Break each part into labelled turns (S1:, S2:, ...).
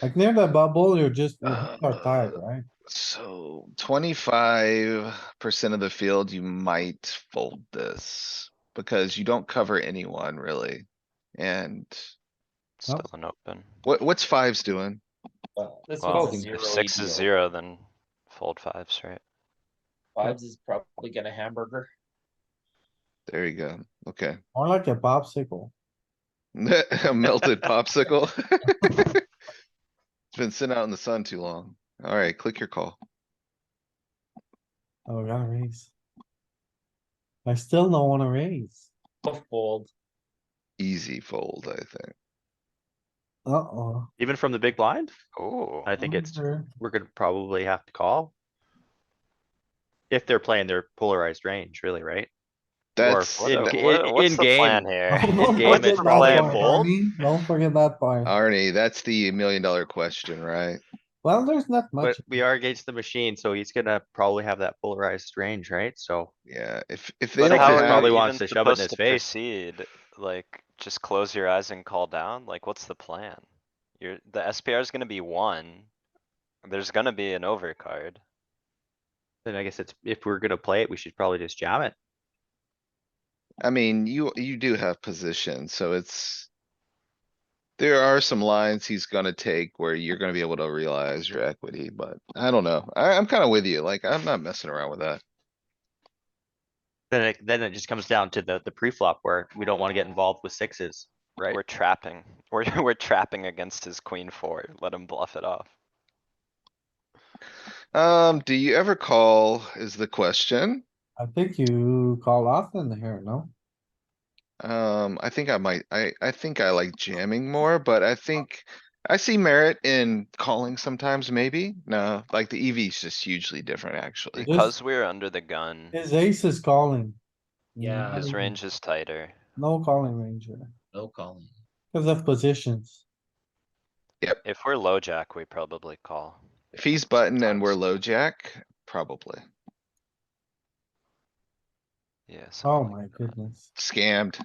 S1: Like near the bubble, you're just, you are
S2: Uh,
S1: tied, right?
S2: So twenty-five percent of the field, you might fold this because you don't cover anyone really. And
S1: Nope.
S3: Still an open.
S2: what, what's fives doing?
S4: This
S3: Well,
S4: one's zero E
S3: if six is zero,
S4: zero.
S3: then fold fives, right?
S4: Fives is probably gonna hamburger.
S2: There you go. Okay.
S1: More like a popsicle.
S2: A Melted popsicle. It's been sitting out in the sun too long. Alright, click your call.
S1: Oh, we gotta raise. I still don't wanna raise.
S4: Tough fold.
S2: Easy fold, I think.
S1: Uh-oh.
S5: Even from the big blind,
S3: Oh,
S5: I think it's,
S1: Under.
S5: we're gonna probably have to call. If they're playing their polarized range, really, right?
S2: That's,
S5: what in-
S3: what,
S5: in-
S3: what- what's
S5: in
S3: the
S5: game.
S3: plan here?
S1: Oh, Don't
S5: game
S1: forget
S5: it's
S1: that
S5: probably a
S1: part,
S5: fold.
S1: Arnie. Don't forget that part.
S2: Arnie, that's the million dollar question, right?
S1: Well, there's not
S5: But
S1: much.
S5: we are against the machine, so he's gonna probably have that polarized range, right? So
S2: Yeah, if, if they
S3: But
S2: don't
S3: how
S5: Probably
S3: are
S2: have,
S3: you
S5: wants
S3: even
S5: to shove it in
S3: supposed
S5: his
S3: to
S5: face.
S3: proceed? Like, just close your eyes and call down? Like, what's the plan? You're, the SPR is gonna be one. There's gonna be an overcard.
S5: then I guess it's, if we're gonna play it, we should probably just jam it.
S2: I mean, you, you do have position, so it's. There are some lines he's gonna take where you're gonna be able to realize your equity, but I don't know. I, I'm kinda with you. Like, I'm not messing around with that.
S5: Then it, then it just comes down to the, the pre-flop where we don't wanna get involved with sixes, right?
S3: We're trapping. We're, we're trapping against his queen four. Let him bluff it off.
S2: Um, do you ever call is the question?
S1: I think you call often here, no?
S2: Um, I think I might, I, I think I like jamming more, but I think. I see merit in calling sometimes, maybe. No, like the EV is just hugely different, actually.
S1: This-
S3: Because we're under the gun,
S1: His ace is calling.
S4: Yeah.
S3: his
S1: Mm,
S3: range is tighter.
S1: No calling range here,
S4: No calling.
S1: cause of positions.
S3: If we're low jack, we probably call.
S2: If he's button and we're low jack, probably
S3: Yeah. something
S1: Oh
S3: like
S1: my
S3: that.
S1: goodness.
S2: scammed.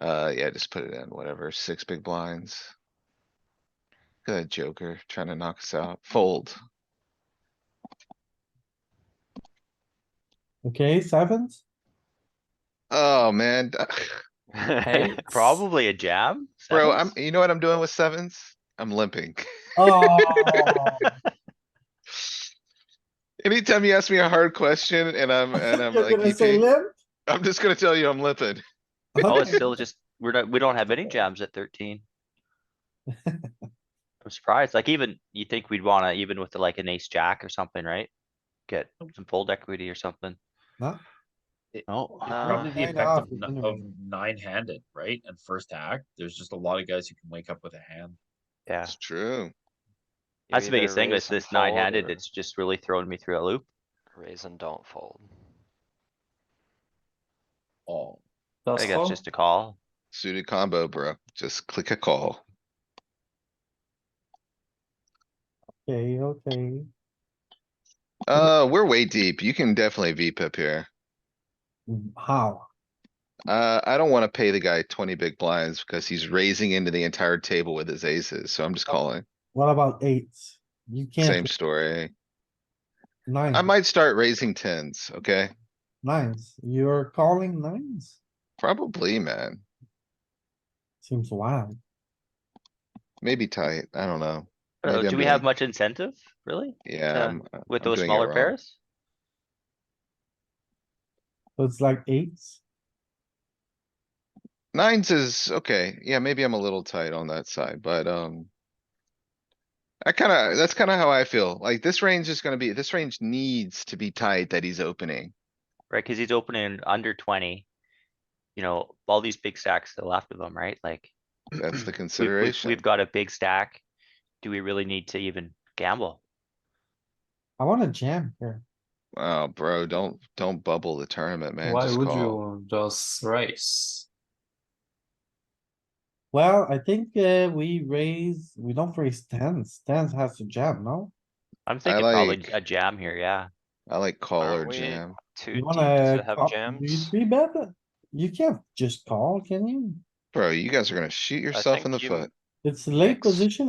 S2: Uh, yeah, just put it in, whatever, six big blinds. Good joker, trying to knock us out, fold.
S1: Okay, sevens?
S2: Oh, man,
S5: Hey, probably a jam.
S2: bro, I'm,
S5: sevens?
S2: you know what I'm doing with sevens? I'm limping.
S1: Oh,
S2: Anytime you ask me a hard question and I'm, and I'm
S1: you're
S2: like,
S1: gonna say
S2: "EP,"
S1: limp?
S2: I'm just gonna tell you I'm limping.
S5: Oh, it's
S1: Okay.
S5: still just, we're not, we don't have any jams at thirteen. I'm surprised, like even, you think we'd wanna, even with like an ace jack or something, right? Get some fold equity or something.
S1: No.
S4: It-
S5: No,
S2: uh,
S4: Probably the
S1: Nine
S4: effect
S1: off
S4: of
S1: is
S4: n-
S1: under
S4: of
S1: me.
S4: nine-handed, right? And first act, there's just a lot of guys who can wake up with a hand.
S5: yeah,
S2: It's true.
S3: You
S5: that's the
S3: either
S5: biggest thing with
S3: raise and
S5: this nine
S3: fold
S5: handed,
S3: or
S5: it's just really throwing me through a loop.
S3: Raise and don't fold.
S4: Oh,
S5: I
S1: Does
S5: think
S1: call?
S5: that's just a call.
S2: Suited combo, bro. Just click a call.
S1: Okay, okay.
S2: Uh, we're way deep. You can definitely VPip here.
S1: Mm, How?
S2: Uh, I don't wanna pay the guy twenty big blinds because he's raising into the entire table with his aces, so I'm just calling.
S1: What about eights? You
S2: Same
S1: can't,
S2: story. I
S1: nines,
S2: might start raising tens, okay?
S1: nines. You're calling nines?
S2: Probably, man.
S1: Seems wild.
S2: Maybe tight. I don't know.
S5: I don't know,
S2: Maybe I'm
S5: Do we have
S2: being-
S5: much incentive, really,
S2: Yeah, um, I'm- Uh, I'm
S5: with those
S2: doing it
S5: smaller
S2: wrong.
S5: pairs?
S1: So It's like eights.
S2: Nines is, okay, yeah, maybe I'm a little tight on that side, but, um. I kinda, that's kinda how I feel. Like this range is gonna be, this range needs to be tight that he's opening.
S5: Right, cuz he's opening under twenty. You know, all these big stacks to the left of him, right, like.
S2: That's the
S5: we've- we've-
S2: consideration.
S5: We've got a big stack. Do we really need to even gamble?
S1: I wanna jam here.
S2: Oh, bro, don't, don't bubble the tournament, man.
S6: Why
S2: Just
S6: would
S2: call.
S6: you just raise?
S1: Well, I think, uh, we raise, we don't raise tens. Tens has to jam, no?
S5: I'm thinking probably
S2: like-
S5: a jam here, yeah.
S2: I like call
S3: Aren't
S2: or
S3: we-
S2: jam.
S3: Too
S1: You
S3: deep to
S1: wanna,
S3: have
S1: call- you
S3: jams.
S1: three bet it? You can't just call, can you?
S2: Bro, you guys are gonna shoot yourself in the
S3: think you-
S2: foot.
S1: It's late
S2: Thanks.
S1: position